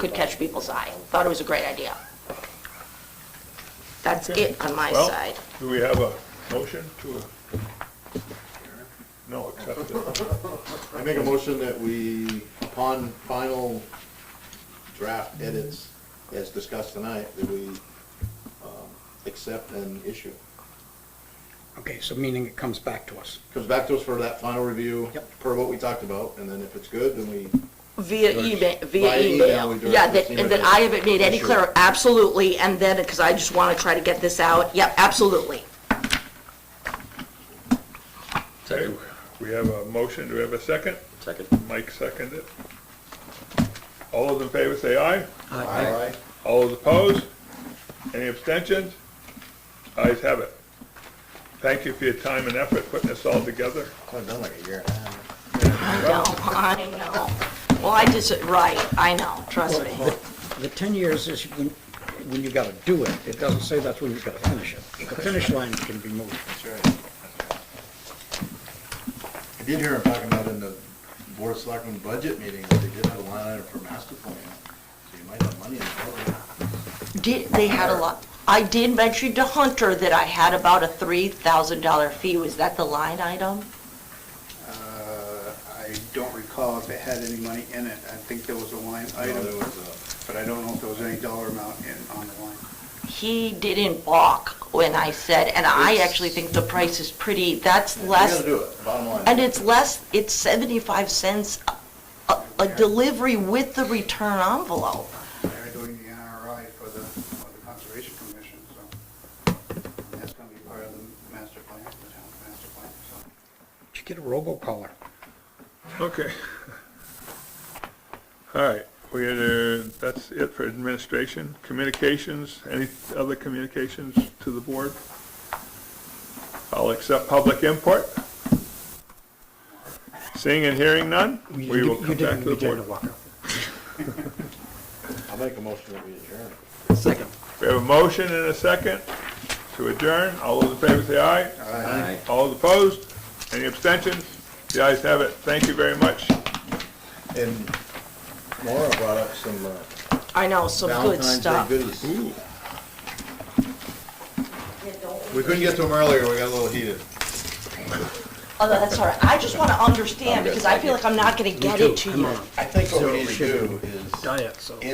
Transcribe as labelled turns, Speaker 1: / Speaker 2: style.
Speaker 1: could catch people's eye. Thought it was a great idea. That's it on my
Speaker 2: Well,
Speaker 1: side.
Speaker 2: Do we have a motion to? No, accept it.
Speaker 3: I make a motion that we, upon final draft edits as discussed tonight, that we um, accept and issue.
Speaker 4: Okay, so meaning it comes back to us.
Speaker 3: Comes back to us for that final review,
Speaker 4: Yep.
Speaker 3: per what we talked about, and then if it's good, then we,
Speaker 1: Via
Speaker 3: Direct-
Speaker 1: email, via
Speaker 3: via email,
Speaker 1: email.
Speaker 3: we direct
Speaker 1: Yeah, that,
Speaker 3: this
Speaker 1: and that
Speaker 3: email.
Speaker 1: I haven't made any
Speaker 3: Sure.
Speaker 1: clear, absolutely, and then, because I just want to try to get this out. Yep, absolutely.
Speaker 2: Okay, We have a motion, do we have a second?
Speaker 5: Second.
Speaker 2: Mike seconded it. All those in favor say aye.
Speaker 3: Aye.
Speaker 2: All those opposed? Any abstentions? Ayes have it. Thank you for your time and effort putting this all together.
Speaker 3: it's only been like a year and a half.
Speaker 1: I know, I know. Well, I just, right, I know, trust me.
Speaker 4: The 10 years is when, when you gotta do it. It doesn't say that's when you gotta finish it. The finish line can be moved.
Speaker 3: That's right. I did hear him talking about in the Board of Selectmen budget meeting, that they did have a line item for master plan, so you might have money in the budget.
Speaker 1: Did, they had a lot. I did mention to Hunter that I had about a $3,000 fee. Was that the line item?
Speaker 6: Uh, I don't recall if it had any money in it. I think there was a line
Speaker 3: No, there
Speaker 6: item,
Speaker 3: was uh, a-
Speaker 6: but I don't know if there was any dollar amount in, on the line.
Speaker 1: He didn't balk when I said, and I
Speaker 3: It's-
Speaker 1: actually think the price is pretty, that's
Speaker 3: You
Speaker 1: less,
Speaker 3: gotta do it, bottom line.
Speaker 1: and it's less, it's 75 cents a- a, a delivery with the return envelope.
Speaker 6: They're doing the NRI for the, for the Conservation Commission, so and that's gonna be part of the master plan, the town's master plan, so.
Speaker 4: Did you get a robocaller?
Speaker 2: Okay. All right, we had, uh, that's it for administration. Communications, any other communications to the board? I'll accept public input. Seeing and hearing none, we
Speaker 4: You-
Speaker 2: will come
Speaker 4: You
Speaker 2: back
Speaker 4: didn't,
Speaker 2: to the
Speaker 4: you didn't,
Speaker 2: board.
Speaker 4: Walker.
Speaker 3: I'll make a motion that we adjourn.
Speaker 4: Second.
Speaker 2: We have a motion and a second to adjourn. All those in favor say aye.
Speaker 5: Aye.
Speaker 2: All those opposed? Any abstentions? The ayes have it. Thank you very much.
Speaker 3: And Laura brought up some uh,
Speaker 1: I know, some good
Speaker 3: Valentine's Day
Speaker 1: stuff.
Speaker 3: goodies. We couldn't get to them earlier, we got a little heated.
Speaker 1: Oh, that's all right. I just want to understand, because I feel like I'm not going to get it to you.
Speaker 3: I think what we need to do is
Speaker 4: Diet, so.